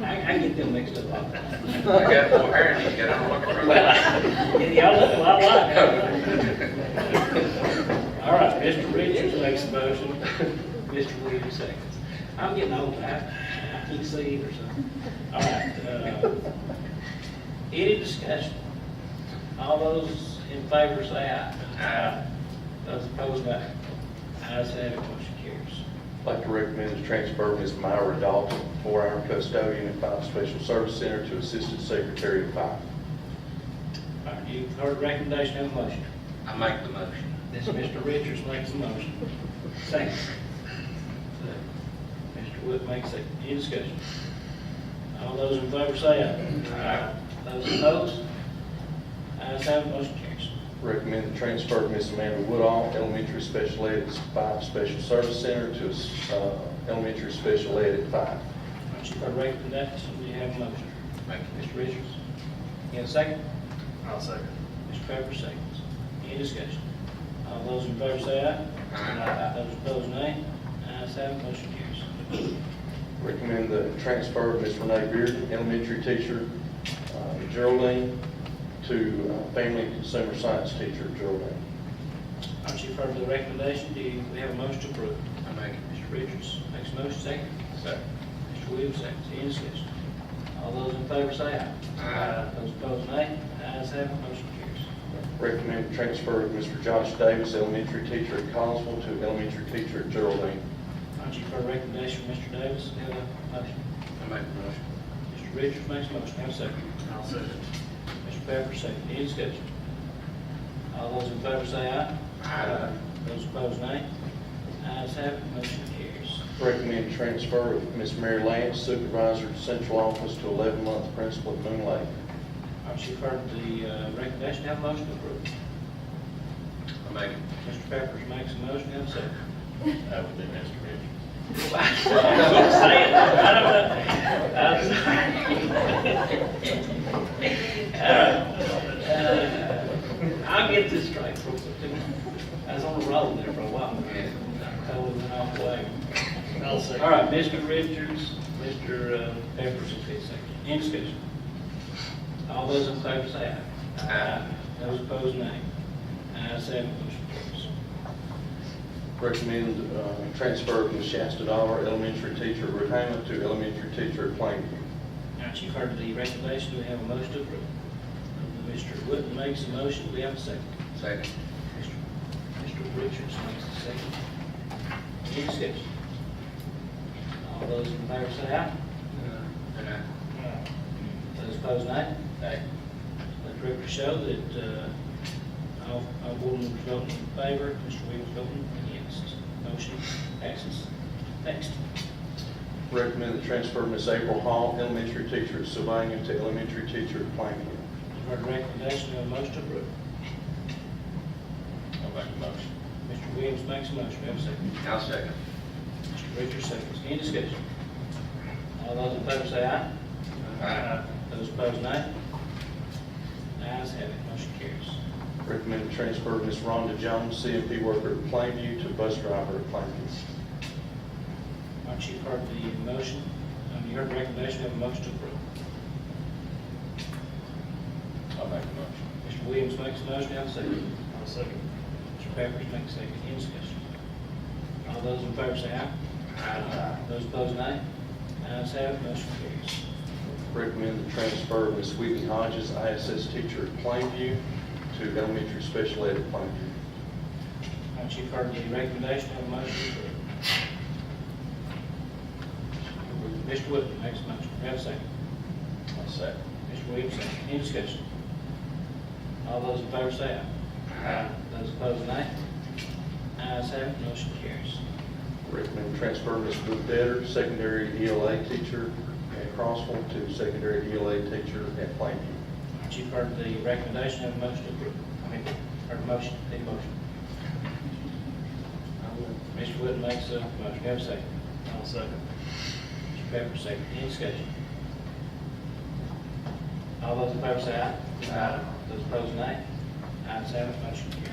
I get them mixed up. I got more hair than you got, I'm looking for Well, y'all look a lot alike. All right, Mr. Richards makes a motion, Mr. Williams seconds. I'm getting old, I, I can't see or something. All right, uh, any discussion? All those in favor say aye. Aye. Those opposed, nay. Ayes have it, motion carries. I'd like to recommend the transfer of Ms. Myra Dalton, four-hour custodian at Five Special Service Center to Assistant Secretary of Five. All right, you've heard the recommendation, have a motion. I make the motion. This Mr. Richards makes a motion. Second. Mr. Wood makes a, any discussion? All those in favor say aye. Aye. Those opposed? Ayes have, it, motion carries. Recommend the transfer of Ms. Amanda Woodall, elementary special ed at Five Special Service Center to uh, elementary special ed at Five. All right, you've heard the recommendation, do you have a motion? Make the Mr. Richards? You have a second? I'll second. Mr. Pepper seconds. Any discussion? All those in favor say aye. Aye. Those opposed, nay. Ayes have, it, motion carries. Recommend the transfer of Ms. Renee Beard, elementary teacher uh, Geraldine, to uh, family and consumer science teacher Geraldine. All right, you've heard the recommendation, do you, we have a motion to approve? I make it. Mr. Richards makes a motion, second. Second. Mr. Williams, second. Any discussion? All those in favor say aye. Aye. Those opposed, nay. Ayes have, it, motion carries. Recommend transfer of Mr. Josh Davis, elementary teacher at Collinsville, to elementary teacher at Geraldine. All right, you've heard the recommendation from Mr. Davis, Do you have a motion. I make the motion. Mr. Richards makes a motion, have a second. I'll second. Mr. Pepper, second. Any discussion? All those in favor say aye. Aye. Those opposed, nay. Ayes have, it, motion carries. Recommend transfer of Ms. Mary Lance, supervisor at central office, to 11-month principal at Moon Lake. All right, you've heard the uh, recommendation, have a motion to approve. I make it. Mr. Pepperidge makes a motion, have a second. I would do Mr. Richards. Say it. I don't know. I'm sorry. Uh, uh, I'll get this straight. for- I was on a roll there for a while. Totally went off the wagon. I'll second. All right, Mr. Richards, Mr. uh, Pepperidge, and Pitt second. Any discussion? All those in favor say aye. Aye. Those opposed, nay. Ayes have, it, motion carries. Recommend uh, transfer of Ms. Shasta Dollar, elementary teacher at Rehama, to elementary teacher at Plainview. Now, Chief, heard the recommendation, do we have a motion to approve? Mr. Wood makes a motion, we have a second. Second. Mr. Richards makes a second. Any discussion? All those in favor say aye. Uh, And I, Those opposed, nay. Aye. Let the record show that uh, all all board members voting in favor, Mr. Williams voting against. Motion passes. Next. Recommend the transfer of Ms. April Hall, elementary teacher at Sylvania, to elementary teacher at Plainview. You've heard the recommendation, we have a motion to approve. I'll make a motion. Mr. Williams makes a motion, we have a second. I'll second. Mr. Richards seconds. Any discussion? All those in favor say aye. Aye. Those opposed, nay. Ayes have it, motion carries. Recommend the transfer of Ms. Rhonda Jones, CMP worker at Plainview, to bus driver at Plainview. All right, Chief, heard the motion, um, you heard the recommendation, have a motion to approve. I'll make a motion. Mr. Williams makes a motion, have a second. I'll second. Mr. Pepperidge makes a second, any discussion? All those in favor say aye. Aye. Those opposed, nay. Ayes have it, motion carries. Recommend the transfer of Ms. Whitney Hodges, ISS teacher at Plainview, to elementary special ed at Plainview. All right, Chief, heard the recommendation, have a motion to approve. Mr. Wood makes a motion, have a second. I'll second. Mr. Williams, second. Any discussion? All those in favor say aye. Aye. Those opposed, nay. Ayes have it, motion carries. Recommend the transfer of Ms. Brooke Detter, secondary ELA teacher at Crossville, to secondary ELA teacher at Plainview. Chief heard the recommendation, have a motion to approve. I mean, heard a motion, need a motion. Mr. Wood makes a motion, have a second. I'll second. Mr. Pepper, second. Any discussion? All those in favor say aye. Aye. Those opposed, nay. Ayes have it, motion carries.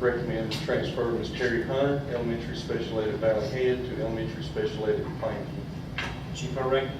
Recommend the transfer of Ms. Terry Hunter, elementary special ed at Valley Head, to elementary special ed at Plainview. Chief heard recommendation,